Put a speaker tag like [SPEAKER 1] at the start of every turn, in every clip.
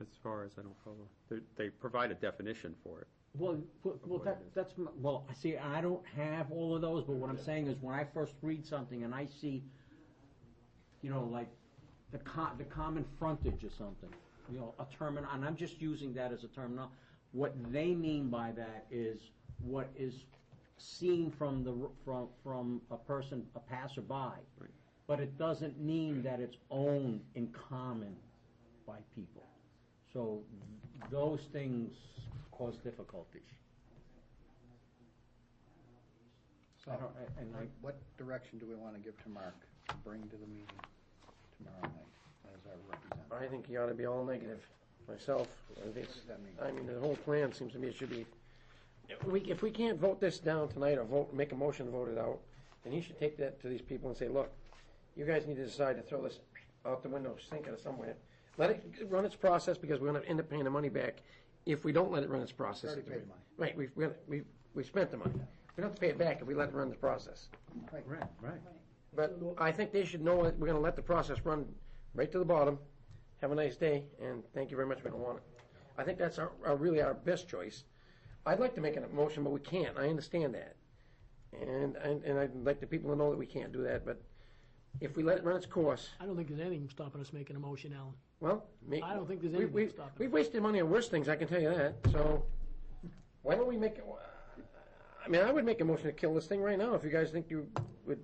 [SPEAKER 1] as far as I don't follow. They, they provide a definition for it.
[SPEAKER 2] Well, well, well,
[SPEAKER 1] what
[SPEAKER 2] that,
[SPEAKER 1] it is.
[SPEAKER 2] that's, my- well, I see, I don't have all of those, but what I'm saying is, when I first read something and I see, you know, like, the co- the common frontage or something, you know, a termin, and I'm just using that as a terminal, what they mean by that is what is seen from the, r- from, from a person, a passerby.
[SPEAKER 1] Right.
[SPEAKER 2] But it doesn't mean that it's owned in common by people. So th- those things cause difficulties. I
[SPEAKER 3] So,
[SPEAKER 2] don't, I- and I,
[SPEAKER 3] what direction do we want to give to Mark to bring to the meeting tomorrow night as our representative?
[SPEAKER 4] I think you ought to be all negative, myself. I think it's-
[SPEAKER 3] What does that mean?
[SPEAKER 4] I mean, the whole plan seems to me it should be, if we, if we can't vote this down tonight or vote, make a motion to vote it out, then you should take that to these people and say, look, you guys need to decide to throw this out the window, sink it somewhere. Let it run its process because we're gonna end up paying the money back if we don't let it run its process.
[SPEAKER 3] Already paid the money.
[SPEAKER 4] Right, we've, we, we we've spent the money. We don't have to pay it back if we let it run the process.
[SPEAKER 3] Right, right.
[SPEAKER 4] But I think they should know that we're gonna let the process run right to the bottom. Have a nice day, and thank you very much, we don't want it. I think that's our, our, really our best choice. I'd like to make a motion, but we can't, I understand that. And, and, and I'd like the people to know that we can't do that, but if we let it run its course,
[SPEAKER 5] I don't think there's anything stopping us making a motion, Alan.
[SPEAKER 4] well, make.
[SPEAKER 5] I don't think there's
[SPEAKER 4] we-
[SPEAKER 5] anything
[SPEAKER 4] we-
[SPEAKER 5] stopping
[SPEAKER 4] We've
[SPEAKER 5] us.
[SPEAKER 4] wasted money on worse things, I can tell you that, so why don't we make, it- I mean, I would make a motion to kill this thing right now, if you guys think you would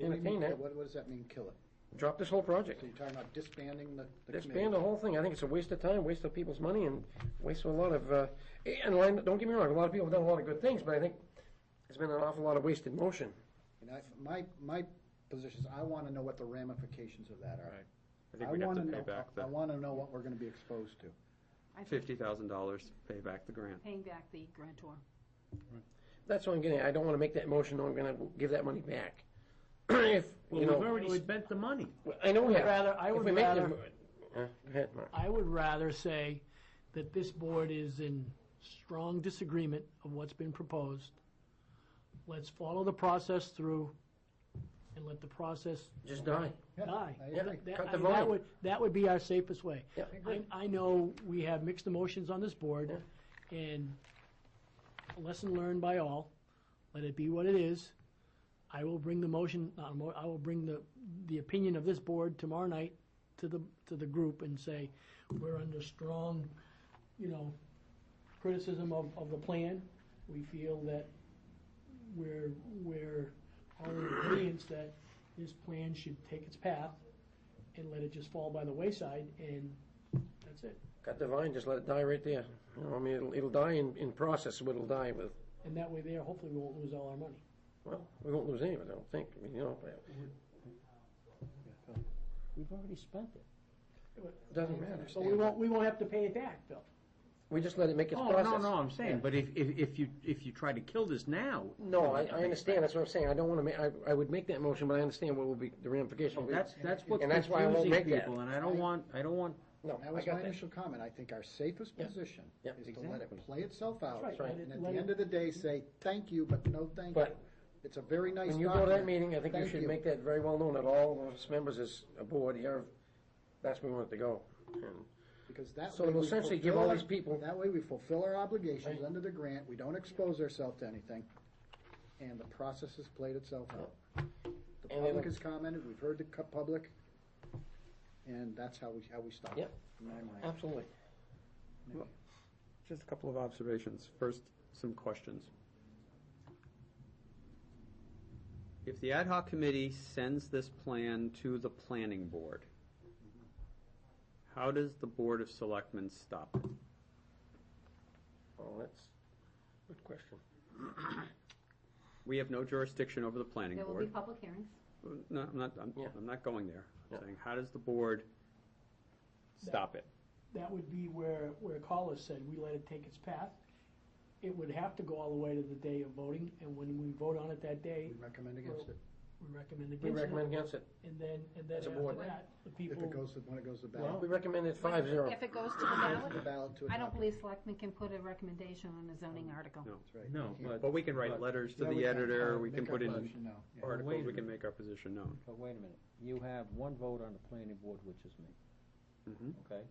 [SPEAKER 4] entertain that.
[SPEAKER 3] What, what does that mean, kill it?
[SPEAKER 4] Drop this whole project.
[SPEAKER 3] So you're talking about disbanding the the committee?
[SPEAKER 4] Expand the whole thing. I think it's a waste of time, waste of people's money, and waste of a lot of, uh, and line- don't get me wrong, a lot of people have done a lot of good things, but I think it's been an awful lot of wasted motion.
[SPEAKER 3] And I, my, my position is, I want to know what the ramifications of that are.
[SPEAKER 1] I think we'd have to
[SPEAKER 3] wanna
[SPEAKER 1] pay
[SPEAKER 3] know-
[SPEAKER 1] back
[SPEAKER 3] I
[SPEAKER 1] the
[SPEAKER 3] want to know what we're going to be exposed to.
[SPEAKER 6] I think
[SPEAKER 1] fifty thousand dollars to pay back the grant.
[SPEAKER 6] paying back the grantor.
[SPEAKER 4] That's what I'm getting at. I don't want to make that motion, or I'm going to give that money back. If, you know,
[SPEAKER 2] spent the money.
[SPEAKER 4] I know we
[SPEAKER 5] I would
[SPEAKER 4] have.
[SPEAKER 5] rather- I
[SPEAKER 4] If
[SPEAKER 5] would
[SPEAKER 4] we make the
[SPEAKER 5] rather-
[SPEAKER 4] mo- uh, Go ahead, Mark.
[SPEAKER 5] I would rather say that this board is in strong disagreement of what's been proposed. Let's follow the process through and let the process
[SPEAKER 4] Just die.
[SPEAKER 3] Yeah,
[SPEAKER 5] die.
[SPEAKER 3] I agree.
[SPEAKER 5] That-
[SPEAKER 4] Cut
[SPEAKER 5] I
[SPEAKER 4] the
[SPEAKER 5] mean, that
[SPEAKER 4] line.
[SPEAKER 5] would, that would be our safest way.
[SPEAKER 4] Yeah.
[SPEAKER 5] I, I know we have mixed emotions on this board, and a lesson learned by all, let it be what it is. I will bring the motion, not a mo- I will bring the, the opinion of this board tomorrow night to the, to the group and say, we're under strong, you know, criticism of, of the plan. We feel that we're, we're all in agreeance that this plan should take its path and let it just fall by the wayside, and that's it.
[SPEAKER 4] Cut the vine, just let it die right there. You know, I mean, it'll, it'll die in, in process, what it'll die with.
[SPEAKER 5] And that way there, hopefully we won't lose all our money.
[SPEAKER 4] Well, we won't lose any of it, I don't think, I mean, you know.
[SPEAKER 2] We've already spent it.
[SPEAKER 4] It doesn't matter.
[SPEAKER 5] So we won't, we won't have to pay it back, Bill.
[SPEAKER 4] We just let it make its
[SPEAKER 2] Oh,
[SPEAKER 4] process.
[SPEAKER 2] no, no, I'm saying, but if, if, if you, if you try to kill this now.
[SPEAKER 4] No, I, I understand, that's what I'm saying, I don't wanna ma, I, I would make that motion, but I understand what will be the ramifications.
[SPEAKER 2] That's, that's what's
[SPEAKER 4] And that's why I won't
[SPEAKER 2] confusing
[SPEAKER 4] make that.
[SPEAKER 2] people, and I don't want, I don't want,
[SPEAKER 4] No,
[SPEAKER 3] That
[SPEAKER 4] I
[SPEAKER 3] was
[SPEAKER 4] got
[SPEAKER 3] my
[SPEAKER 4] that.
[SPEAKER 3] initial comment. I think our safest position
[SPEAKER 4] Yeah.
[SPEAKER 3] is to let
[SPEAKER 2] Exactly.
[SPEAKER 3] it play itself out.
[SPEAKER 5] That's right.
[SPEAKER 3] And at
[SPEAKER 5] Let
[SPEAKER 3] the
[SPEAKER 5] it-
[SPEAKER 3] end of the day, say, thank you, but no thank you.
[SPEAKER 4] But-
[SPEAKER 3] It's a very nice
[SPEAKER 4] When you go to that
[SPEAKER 3] document.
[SPEAKER 4] meeting, I think you
[SPEAKER 3] Thank
[SPEAKER 4] should make that very well known, that all of us members is aboard here, that's where we want it to go. And
[SPEAKER 3] Because that
[SPEAKER 4] So
[SPEAKER 3] way
[SPEAKER 4] it'll
[SPEAKER 3] we
[SPEAKER 4] essentially give
[SPEAKER 3] fulfill
[SPEAKER 4] all
[SPEAKER 3] our-
[SPEAKER 4] these people-
[SPEAKER 3] That way we fulfill our obligations under the grant, we don't expose ourselves to anything, and the process has played itself out. The
[SPEAKER 4] And
[SPEAKER 3] public
[SPEAKER 4] it'll-
[SPEAKER 3] has commented, we've heard the cu- public, and that's how we, how we stop it.
[SPEAKER 4] Yep.
[SPEAKER 3] in my mind.
[SPEAKER 4] Absolutely.
[SPEAKER 1] Just a couple of observations. First, some questions. If the ad hoc committee sends this plan to the planning board, how does the Board of Selectmen stop it?
[SPEAKER 4] Oh, that's, good question.
[SPEAKER 1] We have no jurisdiction over the planning
[SPEAKER 6] There will be
[SPEAKER 1] board.
[SPEAKER 6] public hearings.
[SPEAKER 1] No, I'm not, I'm,
[SPEAKER 4] Yeah.
[SPEAKER 1] I'm not going there. I'm
[SPEAKER 4] Yeah.
[SPEAKER 1] saying, how does the board stop it?
[SPEAKER 5] That would be where, where Collis said, we let it take its path. It would have to go all the way to the day of voting, and when we vote on it that day,
[SPEAKER 3] We recommend against it,
[SPEAKER 5] we recommend
[SPEAKER 4] We
[SPEAKER 5] against
[SPEAKER 4] recommend
[SPEAKER 5] it.
[SPEAKER 4] against it.
[SPEAKER 5] And then, and then
[SPEAKER 4] As a
[SPEAKER 5] after
[SPEAKER 4] board.
[SPEAKER 5] that, the
[SPEAKER 3] if
[SPEAKER 5] people,
[SPEAKER 3] it goes, to- when it goes to ballot.
[SPEAKER 4] Well, we recommended five zero.
[SPEAKER 6] If it goes to the ballot,
[SPEAKER 3] The ballot to
[SPEAKER 6] I don't
[SPEAKER 3] adopt.
[SPEAKER 6] believe selectmen can put a recommendation on a zoning article.
[SPEAKER 1] No.
[SPEAKER 3] That's right.
[SPEAKER 2] no,
[SPEAKER 3] Yeah.
[SPEAKER 2] but,
[SPEAKER 1] But we can write
[SPEAKER 2] But-
[SPEAKER 1] letters to
[SPEAKER 3] Yeah, we
[SPEAKER 1] the
[SPEAKER 3] can,
[SPEAKER 1] editor,
[SPEAKER 3] uh,
[SPEAKER 1] we can
[SPEAKER 3] make
[SPEAKER 1] put
[SPEAKER 3] our
[SPEAKER 1] in
[SPEAKER 3] motion now. Yeah.
[SPEAKER 2] wait
[SPEAKER 1] articles,
[SPEAKER 2] a
[SPEAKER 1] we can make our position known.
[SPEAKER 2] but wait a minute. You have one vote on the planning board, which is me.
[SPEAKER 3] Mm-hmm.
[SPEAKER 1] Mhm.
[SPEAKER 2] Okay?